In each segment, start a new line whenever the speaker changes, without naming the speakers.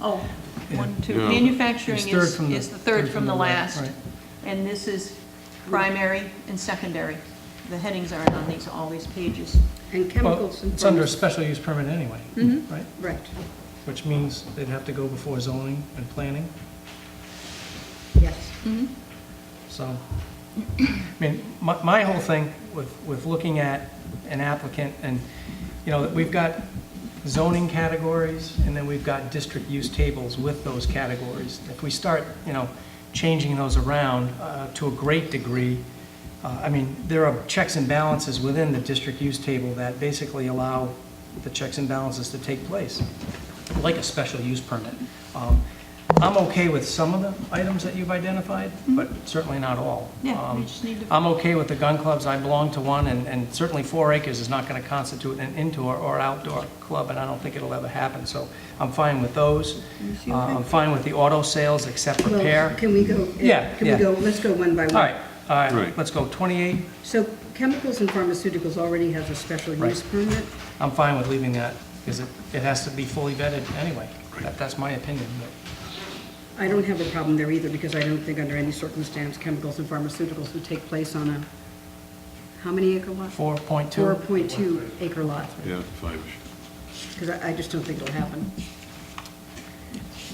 Oh, one, two,
Yeah.
manufacturing
It's third
is,
from the-
is the third from the last.
right.
And this is primary and secondary. The headings aren't on these, all these pages.
And
Well,
chemicals and. Mm-hmm.
it's under a
pharmac-
special use permit anyway,
Mhm.
right?
Right.
Which means they'd have to go before zoning and planning,
Yes.
Mm-hmm.
Mhm.
so. I mean, my, my whole thing with, with looking at an applicant and, you know, we've got zoning categories and then we've got district use tables with those categories. If we start, you know, changing those around uh, to a great degree, uh, I mean, there are checks and balances within the district use table that basically allow the checks and balances to take place, like a special use permit. Um, I'm okay with some of the items that you've identified, but certainly not all.
Yeah, we
Um,
just need to,
I'm okay with the gun clubs, I belong to one, and, and certainly four acres is not gonna constitute an indoor or outdoor club, and I don't think it'll ever happen, so I'm fine with those. Uh, I'm fine with the auto sales, except
Well,
repair.
Can we go? uh,
Yeah,
Can
yeah.
we go, let's go one by one.
All right, all right,
Right.
let's go twenty-eight,
So chemicals and pharmaceuticals already has a special
Right.
use permit.
I'm fine with leaving that, because it, it has to be fully vetted anyway. That- That's my opinion, but
I don't have a problem there either, because I don't think under any circumstance, chemicals and pharmaceuticals would take place on a, how many acre lot?
four point
Four
two,
point two acre lot,
Yeah, five-ish.
because I, I just don't think it'll happen.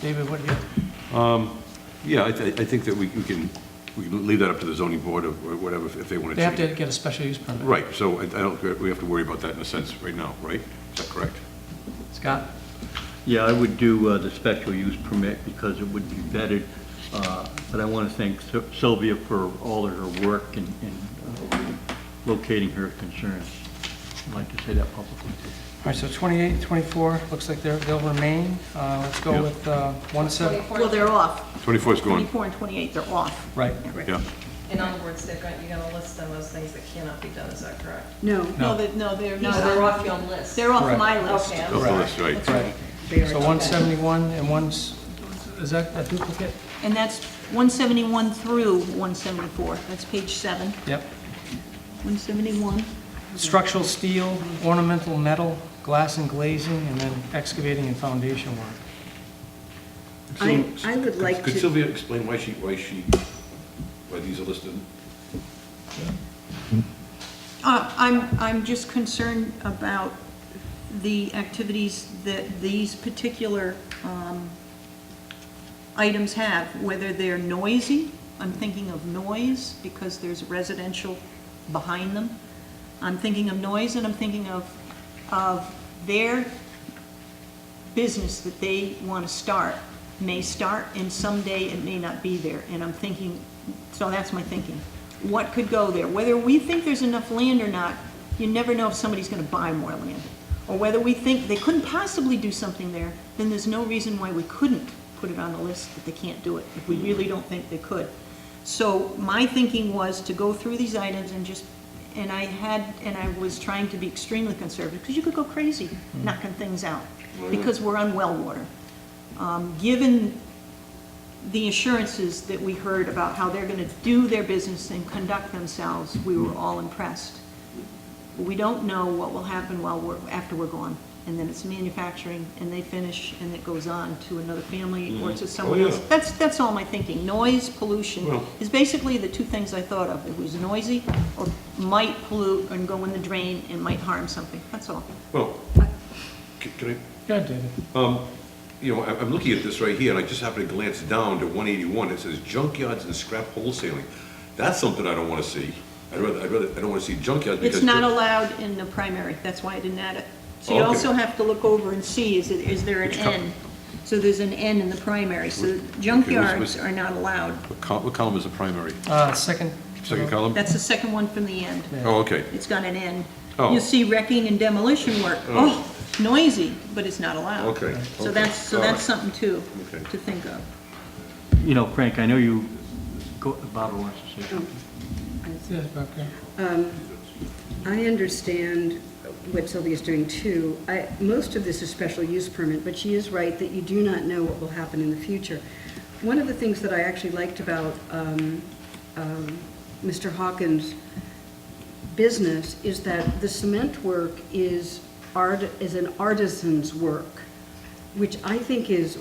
David, what do you,
Yeah, I, th- I think that we we can, we can leave that up to the zoning board or or whatever, if if they want
they
to
have
change
to
it.
get a special use permit.
Right, so I I don't, we have to worry about that in a sense right now, right? Is that correct?
Scott,
Yeah, I would do uh, the special use permit because it would be vetted, uh, but I want to thank Syl- Sylvia for all of her work in in, uh, locating her concerns. I'd like to say that publicly.
all right, so 28, 24. looks like they're, they'll remain, uh, let's go
Yep.
with, uh, one seven,
well, they're off.
24 is gone,
24 and 28, they're off.
right.
yeah.
In other words, they're going, you're gonna list them as things that cannot be done, is that correct?
No,
No.
No, they no, they're not.
They're off your list.
They're off
Correct.
my list.
Okay.
Off the list, right.
Right.
they are.
So 171 and one's, is that a duplicate?
And that's 171 through 174. That's page seven.
Yep.
171.
Structural steel, ornamental metal, glass and glazing, and then excavating and foundation work.
I,
So-
I would
could-
like
Could
to,
Sylvia explain why she, why she, why these are listed?
Uh, I'm, I'm just concerned about the activities that these particular um, items have, whether they're noisy, I'm thinking of noise, because there's residential behind them. I'm thinking of noise, and I'm thinking of, of their business that they want to start may start, and someday it may not be there. And I'm thinking, so that's my thinking. What could go there? Whether we think there's enough land or not, you never know if somebody's going to buy more land. Or whether we think they couldn't possibly do something there, then there's no reason why we couldn't put it on the list that they can't do it, if we really don't think they could. So my thinking was to go through these items and just, and I had, and I was trying to be extremely conservative, because you could go crazy knocking things out, because we're on well water. Um, Given the assurances that we heard about how they're going to do their business and conduct themselves, we were all impressed. We don't know what will happen while we're, after we're gone, and then it's manufacturing, and they finish, and it goes on to another family or to someone
yeah.
else. That's, that's all my thinking. Noise, pollution
Well-
is basically the two things I thought of. It was noisy or might pollute and go in the drain and might harm something. That's all.
Well, c- can I,
Yeah, David.
you know, I- I'm looking at this right here, and I just happened to glance down to 181. It says junkyards and scrap wholesaling. That's something I don't want to see. I'd rather, I'd rather, I don't want to see junkyards because...
It's not allowed in the primary, that's why I didn't add it. So you
Okay.
also have to look over and see, is, it is there an
Which col-
N? So there's an N in the primary, so
was-
junkyards are not allowed.
What col- What column is the primary?
Uh, second.
Second column?
That's the second one from the end.
Oh, okay.
It's got an N.
Oh.
You see wrecking and demolition work,
Oh.
oh, noisy, but it's not allowed.
Okay,
So
okay.
that's, so
All right.
that's something too,
Okay.
to think of.
You know, Frank, I know you, go- Barbara wants to say something.
Yes, okay.
I understand what Sylvia's doing too. I, most of this is special use permit, but she is right that you do not know what will happen in the future. One of the things that I actually liked about um, um, Mr. Hawkins' business is that the cement work is art, is an artisan's work, which I think is,